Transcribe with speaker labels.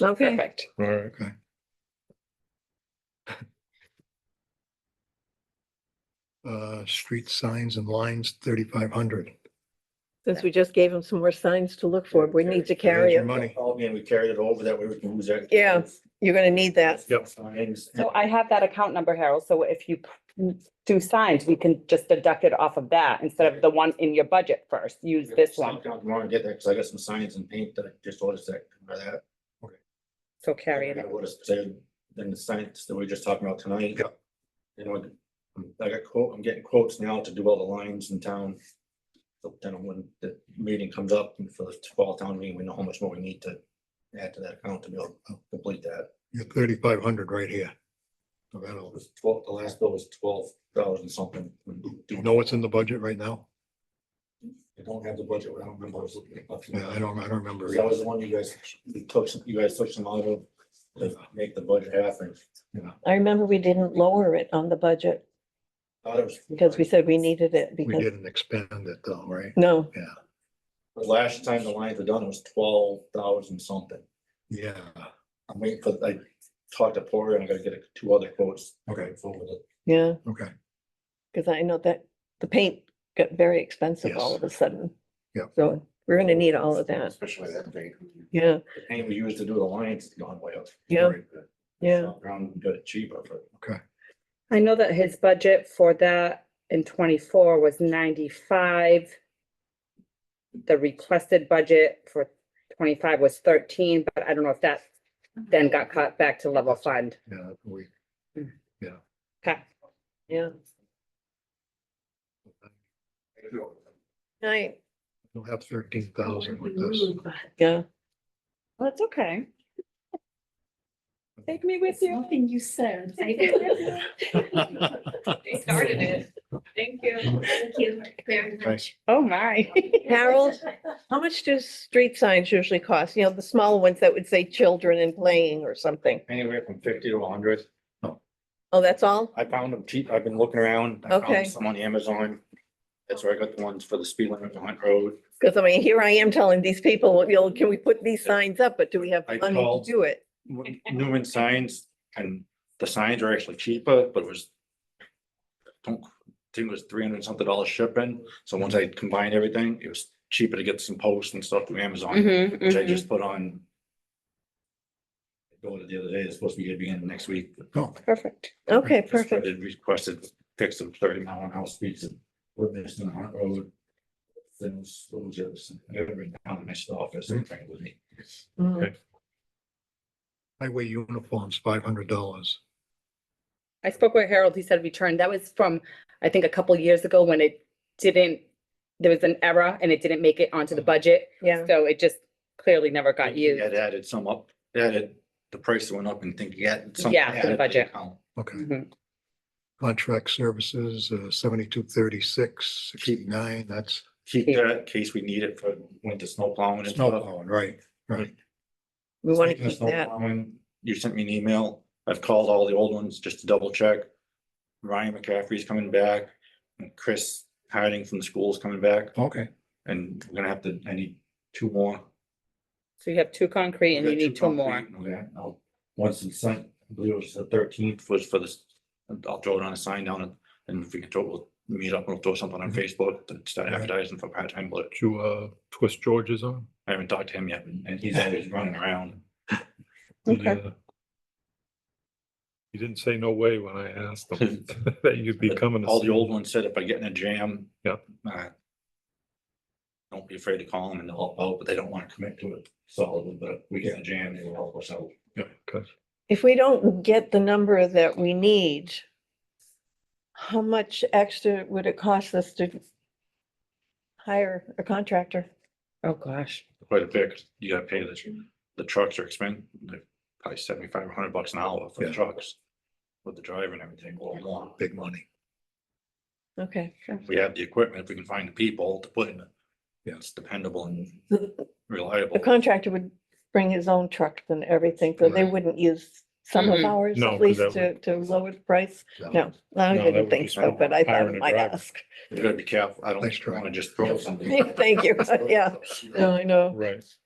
Speaker 1: Okay.
Speaker 2: Perfect.
Speaker 3: All right, okay. Uh, street signs and lines, thirty-five hundred.
Speaker 1: Since we just gave him some more signs to look for, we need to carry
Speaker 3: your
Speaker 1: it.
Speaker 3: Money.
Speaker 4: Called me and we carried it over that way we can use that.
Speaker 1: Yeah. You're gonna need that.
Speaker 3: Yep.
Speaker 4: Signs.
Speaker 2: So I have that account number, Harold, so if you p- do signs, we can just deduct it off of that instead of the one in your budget first, use this one.
Speaker 4: Sometime Tomorrow and get that, because I got some signs and paint that I just ordered that, remember that.
Speaker 2: So carry it.
Speaker 4: I would have said, then the signs that we were just talking about tonight.
Speaker 3: Yeah.
Speaker 4: And when, I got quote, I'm getting quotes now to do all the lines in town. So then when the meeting comes up and for the fall town meeting, we know how much more we need to add to that account to be able to complete that.
Speaker 3: You're thirty-five hundred right here. So
Speaker 4: It
Speaker 3: that'll,
Speaker 4: was twelve, the last bill was twelve thousand something.
Speaker 3: do you know what's in the budget right now?
Speaker 4: I don't have the budget, I don't remember. I was looking at nothing.
Speaker 3: Yeah, I don't, I don't remember.
Speaker 4: Because that was the one you guys, you took, some- you guys took some out of, to make the budget happen.
Speaker 1: I remember we didn't lower it on the budget
Speaker 4: Thought it was.
Speaker 1: because we said we needed it
Speaker 3: We
Speaker 1: because,
Speaker 3: didn't expand it though, right?
Speaker 1: no,
Speaker 4: The Last time the lines were done, it was twelve thousand something.
Speaker 3: Yeah,
Speaker 4: I'm waiting for, I talked to Porter and I gotta get a- two other quotes.
Speaker 3: Okay.
Speaker 4: Forward with it.
Speaker 1: yeah,
Speaker 3: okay.
Speaker 1: because I know that the paint got very expensive
Speaker 3: Yes.
Speaker 1: all of a sudden.
Speaker 3: Yep.
Speaker 1: So we're gonna need all of that.
Speaker 4: Especially that paint.
Speaker 1: Yeah,
Speaker 4: The paint we used to do the lines has gone way up.
Speaker 1: yeah, yeah.
Speaker 4: Around, we got it cheaper, but
Speaker 2: I know that his budget for that in twenty-four was ninety-five. The requested budget for twenty-five was thirteen, but I don't know if that then got cut back to level fund.
Speaker 3: Yeah, we,
Speaker 2: Okay.
Speaker 1: Yeah. Right,
Speaker 3: we'll have thirteen thousand with this.
Speaker 1: yeah.
Speaker 2: Well, it's okay. Take me with
Speaker 5: It's nothing you said.
Speaker 6: They started it. Thank you.
Speaker 5: Thank you very
Speaker 3: Thanks.
Speaker 5: much.
Speaker 2: Oh, my.
Speaker 1: Harold? How much do street signs usually cost? You know, the small ones that would say children and playing or something.
Speaker 4: anywhere from fifty to hundred.
Speaker 1: Oh, that's all?
Speaker 4: I found them cheap. I've been looking around. I found
Speaker 1: Okay.
Speaker 4: Some on Amazon. That's where I got the ones for the speed limit on Hunt Road.
Speaker 1: Because I mean, here I am telling these people, you know, can we put these signs up, but do we have
Speaker 4: I
Speaker 1: the money to
Speaker 4: called-
Speaker 1: do it?
Speaker 4: Newman signs and the signs are actually cheaper, but it was. Don't, I think it was three hundred something dollars shipping. So once I combined everything, it was cheaper to get some posts and stuff from
Speaker 1: Mm-hmm,
Speaker 4: Amazon,
Speaker 2: Mm-hmm,
Speaker 4: which I just put on. I Ordered the other day. It's supposed to be beginning next week.
Speaker 3: Oh,
Speaker 2: Perfect.
Speaker 1: Okay,
Speaker 4: Just
Speaker 1: perfect.
Speaker 4: started Requested fix of thirty mile an hour speeds and we're missed on Hunt Road. Then soldiers, every town missed office and thing with me.
Speaker 2: Mm-hmm.
Speaker 1: Mm.
Speaker 3: highway uniforms, five hundred dollars.
Speaker 2: I spoke with Harold, he said return, that was from, I think, a couple years ago when it didn't, there was an error and it didn't make it onto the budget,
Speaker 1: Yeah,
Speaker 2: so it just clearly never got
Speaker 4: He
Speaker 2: used.
Speaker 4: Had added some up, added, the price went up and think he had some.
Speaker 2: Yeah, to the
Speaker 4: added
Speaker 2: budget.
Speaker 4: account.
Speaker 3: Okay.
Speaker 2: Mhm.
Speaker 3: Contract services, uh, seventy-two thirty-six, sixty-nine, that's
Speaker 4: Keep
Speaker 2: Yeah.
Speaker 4: that in case we need it for winter snow plowing and
Speaker 3: snow
Speaker 4: stuff.
Speaker 3: plowing, right? Right.
Speaker 1: we want to
Speaker 4: Speaking of
Speaker 1: keep
Speaker 4: snow
Speaker 1: that.
Speaker 4: plowing, You sent me an email. I've called all the old ones just to double check. Ryan McCaffrey's coming back. and Chris hiding from the school's coming back.
Speaker 3: Okay,
Speaker 4: And we're gonna have to, I need two more.
Speaker 2: So you have two concrete and you need two more.
Speaker 4: more. Once it's signed, I believe it was the thirteenth was for this, I'll throw it on a sign down and, and if we can throw, we'll meet up, we'll throw something on
Speaker 2: Mm-hmm.
Speaker 3: Mhm.
Speaker 4: Facebook to start
Speaker 3: Yeah.
Speaker 4: advertising for part-time, but
Speaker 7: Did you uh twist George's arm?
Speaker 4: I haven't talked to him yet, and he's always running around.
Speaker 1: Okay.
Speaker 7: Yeah. He didn't say no way when I asked him that you'd be coming. to
Speaker 4: All the
Speaker 7: see
Speaker 4: old
Speaker 7: him.
Speaker 4: ones said if I get in a jam.
Speaker 7: Yep.
Speaker 4: uh, Don't be afraid to call them and they'll help out, but they don't want to commit to it solidly, but if we get in a jam, they will help us out.
Speaker 7: Yeah, okay.
Speaker 1: If we don't get the number that we need, how much extra would it cost us to hire a contractor?
Speaker 2: Oh, gosh.
Speaker 4: Quite a bit, 'cause you gotta pay the, the trucks are expensive, they're probably seventy-five, hundred bucks an hour for the
Speaker 3: Yeah.
Speaker 4: trucks. With the driver and everything, well, more.
Speaker 3: big money.
Speaker 1: Okay.
Speaker 4: If we have the equipment, if we can find the people to put in it.
Speaker 3: Yeah.
Speaker 4: It's dependable and
Speaker 1: The
Speaker 4: reliable.
Speaker 1: contractor would bring his own trucks and everything, so they
Speaker 3: Right.
Speaker 1: wouldn't use some of
Speaker 2: Mhm.
Speaker 1: ours
Speaker 7: Mm-hmm. No,
Speaker 1: at
Speaker 7: 'cause
Speaker 1: least
Speaker 7: that
Speaker 1: to, to lower the price. No, I
Speaker 7: No, that
Speaker 1: didn't
Speaker 7: would
Speaker 1: think
Speaker 7: be
Speaker 1: so, but I thought
Speaker 7: hiring
Speaker 1: I
Speaker 7: a
Speaker 1: might
Speaker 7: driver.
Speaker 1: ask.
Speaker 4: You gotta be careful, I don't
Speaker 3: Nice try.
Speaker 4: wanna just throw something.
Speaker 1: Thank you, yeah. No, I know.
Speaker 7: Right.